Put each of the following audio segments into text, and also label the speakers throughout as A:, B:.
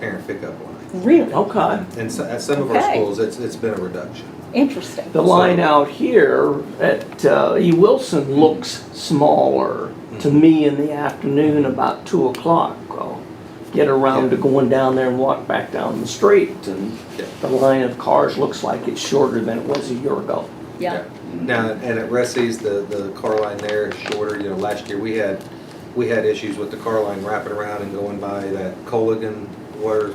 A: parent pickup line.
B: Really? Oh,
C: Okay.
A: And so, at some of our
B: Okay.
A: schools, it's, it's been a reduction.
B: Interesting.
C: The line out here at uh, E. Wilson looks smaller to
A: Mm-hmm.
C: me in the afternoon about two o'clock. I'll Get around to going down there and walk back down the street and
A: Yeah.
C: the line of cars looks like it's shorter than it was a year ago.
B: Yeah.
A: Now, and at Ressy's, the, the car line there is shorter, you know, last year we had, we had issues with the car line wrapping around and going by that Coligan water,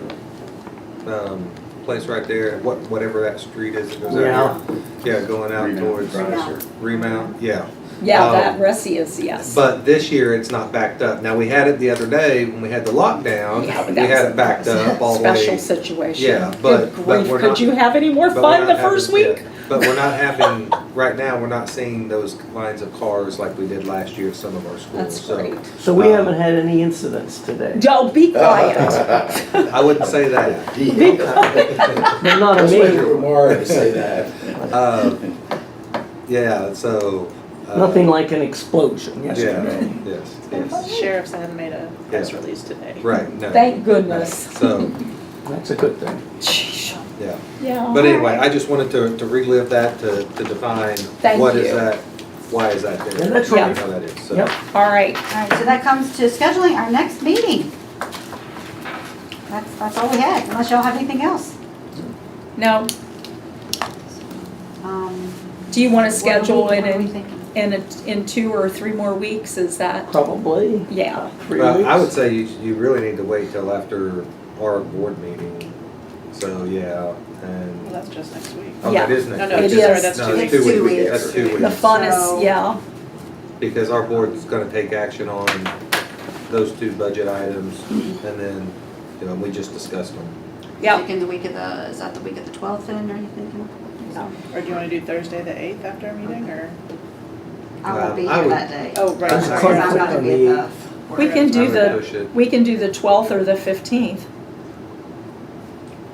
A: um, place right there, what, whatever that street is that goes out here. Yeah, going out
D: Remount.
A: towards.
E: Remount.
A: Remount, yeah.
B: Yeah,
A: Um,
B: that Russi is, yes.
A: But this year, it's not backed up. Now, we had it the other day when we had the lockdown,
B: Yeah,
A: we
B: that
A: had
B: was-
A: it backed up all the
B: Special
A: way.
B: situation.
A: Yeah,
B: Good
A: but- but
B: grief,
A: we're
B: Could
A: not-
B: you have any more
A: but we're
B: fun
A: not
B: the
A: having-
B: first
A: yeah.
B: week?
A: But we're not having, right now, we're not seeing those lines of cars like we did last year at some of our schools.
B: That's
A: So
B: great.
C: So we
A: Um,
C: haven't had any incidents today.
B: Don't be quiet.
A: I wouldn't say that.
C: They're not a
D: That's why
C: major,
D: you're more to say that.
A: Uh, Yeah, so. uh,
C: nothing like an explosion yesterday.
A: Yeah, yes, yes.
F: Sheriff's had made a press
A: Yeah.
F: release today.
A: Right, no.
B: Thank goodness.
A: So,
C: That's a good thing.
B: Sheesh.
A: yeah.
B: Yeah.
A: But anyway, I just wanted to, to relive that, to, to define
B: Thank
A: what is
B: you.
A: that, why is that there?
C: Yeah, that's
A: you know,
C: right.
A: How that is, so.
C: Yep.
B: All right.
E: All right, so that comes to scheduling our next meeting. That's, that's all we had, unless y'all have anything else.
B: Now,
E: Um,
B: do you want to
E: what are we-
B: schedule it
E: what are we
B: in,
E: thinking?
B: in, a- in two or three more weeks? Is that,
C: Probably
B: yeah.
C: three
A: Well, I would
C: weeks.
A: say you, you really need to wait till after our board meeting, so, yeah,
F: Well,
A: and,
F: that's just next week.
A: oh,
B: Yeah.
A: that is next.
F: No, no,
A: week,
B: it
A: isn't
B: is.
A: it?
F: That's
A: No,
F: two
A: it's
F: weeks.
A: two
E: Two
A: weeks,
E: weeks.
A: that's two
B: The
A: weeks,
B: fun
E: So-
B: is, yeah.
A: because our board is gonna take action on those two budget items, and then, you know, we just discussed them.
B: Yeah.
E: Thinking the week of the, is that the week of the twelfth then, are you thinking?
F: Or do you want to do Thursday the 8th after our meeting or?
E: I won't be
A: Uh, I
E: here
A: would-
E: that day.
F: Oh, right.
E: Because
C: That's
F: sorry.
E: I'm gonna be at the.
B: We can
A: I
B: do
A: would
B: the,
A: push it.
B: we can do the 12th or the 15th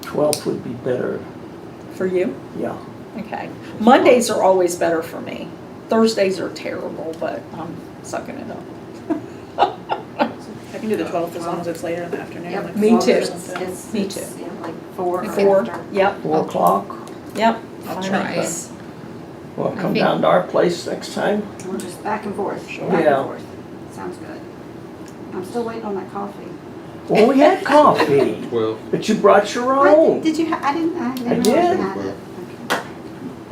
C: Twelfth would be better,
B: for you.
C: yeah.
B: Okay. Mondays are always better for me. Thursdays are terrible, but I'm sucking it up.
F: I can do the 12th as long as it's later in the afternoon.
E: Yep,
F: like
B: Me
F: four or
B: too.
E: It's-
F: something.
E: it's-
B: Me
E: it's, yeah, Like four or
B: Four,
E: after.
B: yep,
C: Four o'clock,
B: yep.
F: I'll
B: Fine.
F: try.
C: well,
G: I
C: come
G: think-
C: down to our place next time.
E: We're just back and forth, back
C: Yeah.
E: and forth. Sounds good. I'm still waiting on that coffee.
C: Well, we had coffee,
A: Twelve.
C: but you brought your
E: I did-
C: own.
E: Did you, ha- I didn't, I
C: I
E: didn't realize
C: did.
E: you had it. Okay.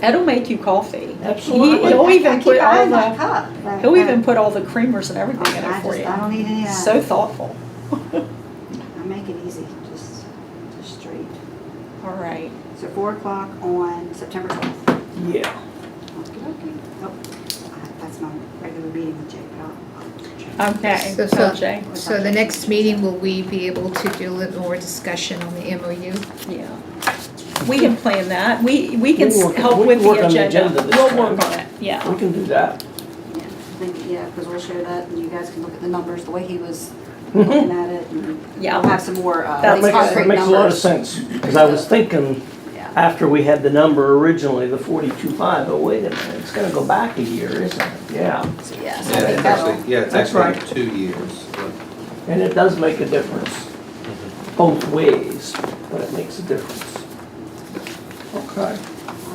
B: Ed'll make you coffee. He-
C: Absolutely.
B: He'll
E: I- I
B: even
E: keep
B: put all
E: eyeing my
B: the,
E: cup, but,
B: he'll
E: uh,
B: even put all the creamers and everything in
E: I
B: it for
E: just, I
B: you.
E: don't need any of that.
B: So thoughtful.
E: I make it easy, just, just straight.
B: All right.
E: So four o'clock on September twelfth.
C: Yeah,
E: Okay, okay. Oh, I- that's my regular meeting with Jake,
B: Uh,
E: but I'll- I'll.
B: Okay.
G: So, so-
B: Okay.
G: So the next meeting, will we be able to do a little more discussion on the MOU?
B: Yeah. We can plan that. We, we can
C: We'll
B: s-
C: work-
B: help
C: we
B: with
C: can work
B: the
C: on the
B: agenda.
C: agenda this
B: We'll
C: time.
B: work on it, yeah.
C: we can do that.
E: Yeah, I think, yeah, because we'll share that and you guys can look at the numbers, the way he was looking at it and
B: Yeah.
E: we'll have some more,
B: That
E: uh,
C: That
E: these
C: makes,
E: concrete
C: that
E: numbers.
C: makes a lot of sense, because I was thinking,
E: Yeah.
C: after we had the number originally, the forty-two five, oh, wait a minute, it's gonna go back a year, isn't it? Yeah,
E: So, Yeah, so I
A: Yeah,
E: think
A: it's
E: that'll,
A: actually, yeah, it's
C: That's
A: actually two years, but-
C: and it does make a difference, both ways, but it makes a difference. Okay.
E: all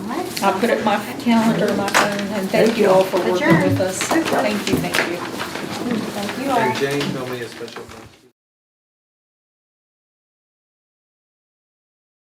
E: right.
B: I'll put it in my calendar, my phone, and thank you all for working with us.
E: Adjourned.
B: Thank you, thank you.
E: Thank you all.
A: Hey, Jane, tell me a special.